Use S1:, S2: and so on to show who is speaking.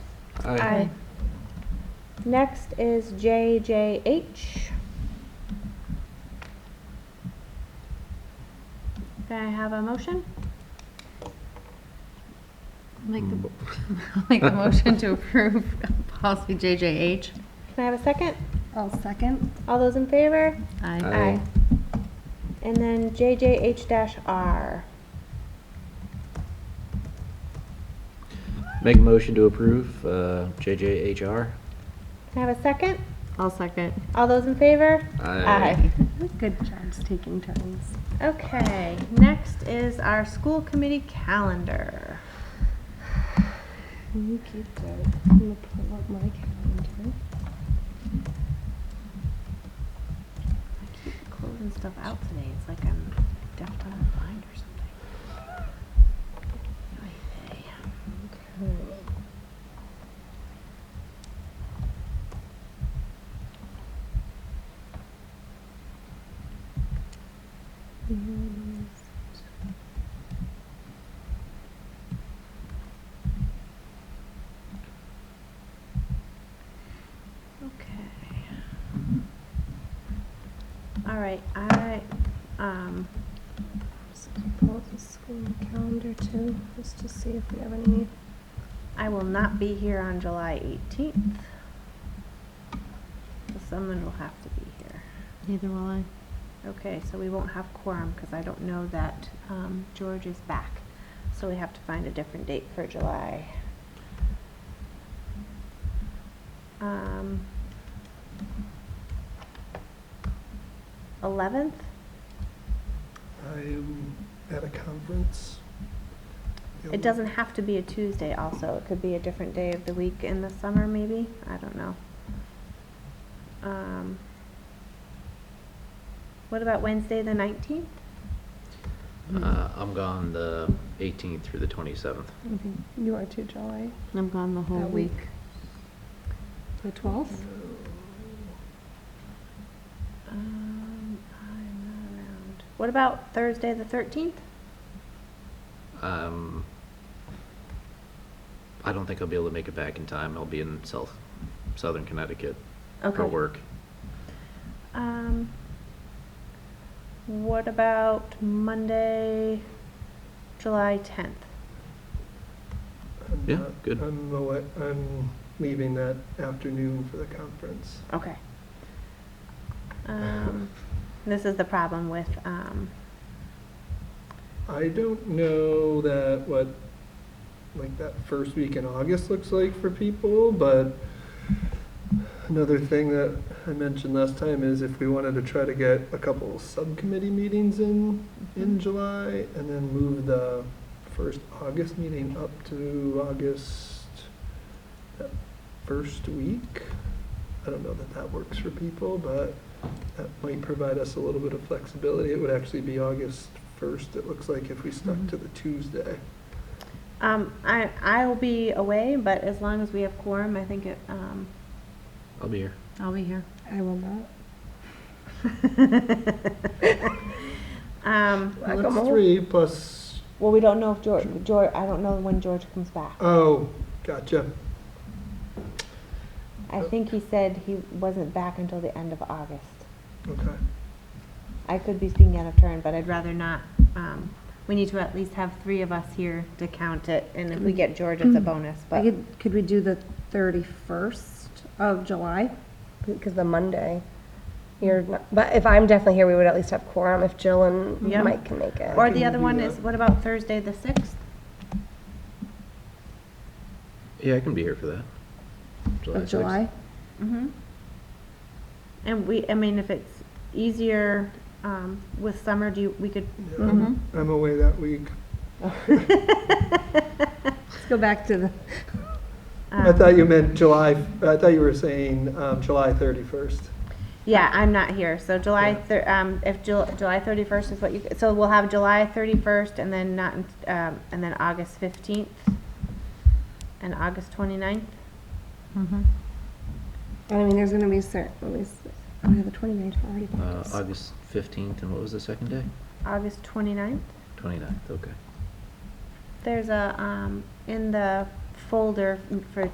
S1: Aye.
S2: Next is JJH. Can I have a motion?
S3: Make the, I'll make the motion to approve policy JJH.
S2: Can I have a second?
S3: I'll second.
S2: All those in favor?
S3: Aye.
S1: Aye.
S2: And then JJH-R.
S1: Make a motion to approve uh, JJHR.
S2: Can I have a second?
S3: I'll second.
S2: All those in favor?
S3: Good jobs taking turns.
S2: Okay, next is our school committee calendar.
S3: You keep that. I'm gonna pull up my calendar.
S2: I keep closing stuff out today. It's like I'm deaf, dumb, and blind or something. Oy vey. Okay. All right, I, um,
S3: Pull up the school calendar too, just to see if we have any.
S2: I will not be here on July eighteenth. Someone will have to be here.
S3: Neither will I.
S2: Okay, so we won't have quorum because I don't know that, um, George is back. So we have to find a different date for July. Um. Eleventh,
S4: I'm at a conference.
S2: it doesn't have to be a Tuesday also, it could be a different day of the week in the summer maybe, I don't know. Um. What about Wednesday, the nineteenth?
S5: Mm-hmm.
S1: Uh, I'm gone the 18th through the 27th.
S5: You are too, July.
S3: I'm gone the whole
S5: That
S3: week.
S5: week. The twelfth?
S2: Um, I'm not around. What about Thursday the thirteenth?
S1: Um, I don't think I'll be able to make it back in time. I'll be in South, Southern Connecticut for work.
S2: Um, what about Monday, July tenth?
S4: I'm
S1: Yeah,
S4: not-
S1: good.
S4: I'm, awa- I'm leaving that afternoon for the conference.
S2: Okay. Um, this is the problem with, um,
S4: I don't know that what, like, that first week in August looks like for people, but another thing that I mentioned last time is if we wanted to try to get a couple subcommittee meetings in, in July, and then move the first August meeting up to August, that first week. I don't know that that works for people, but that might provide us a little bit of flexibility. It would actually be August first, it looks like, if we stuck to the Tuesday.
S2: um, I, I'll be away, but as long as we have quorum, I think it, um,
S1: I'll be here.
S3: I'll be here.
S5: I will not.
S2: um,
S4: Well, That's three plus,
S2: well, we don't know if George, George, I don't know when George comes back.
S4: oh, gotcha.
S2: I think he said he wasn't back until the end of August.
S4: Okay.
S2: I could be speaking out of turn, but I'd rather not. Um, we need to at least have three of us here to count it, and if we get George, it's a bonus,
S5: I
S2: but
S5: could, could we do the thirty-first of July? Because the Monday, you're not, but if I'm definitely here, we would at least have quorum if Jill and
S2: Yeah.
S5: Mike can make it.
S2: Or
S4: can
S2: the other
S4: do
S2: one
S4: that.
S2: is, what about Thursday, the sixth?
S1: Yeah, I can be here for that. July
S5: Of
S1: 6th.
S5: July?
S2: Mm-hmm. And we, I mean, if it's easier, um, with summer, do you, we could, um, Mm-hmm.
S5: Mm-hmm.
S4: Yeah, I'm- I'm away that week.
S5: Let's go back to the,
S4: I
S2: um,
S4: thought you meant July, I thought you were saying, um, July thirty-first.
S2: yeah, I'm not here, so July
S4: Yeah.
S2: thir- um, if Jul- July thirty-first is what you, so we'll have July thirty-first and then not, in- um, and then August fifteenth and August twenty-ninth.
S3: Mm-hmm.
S5: I mean, there's gonna be certain, at least, oh, yeah, the twenty-ninth already.
S1: Uh, August 15th, and what was the second day?
S2: August 29th.
S1: 29th, okay.
S2: There's a, um, in the folder for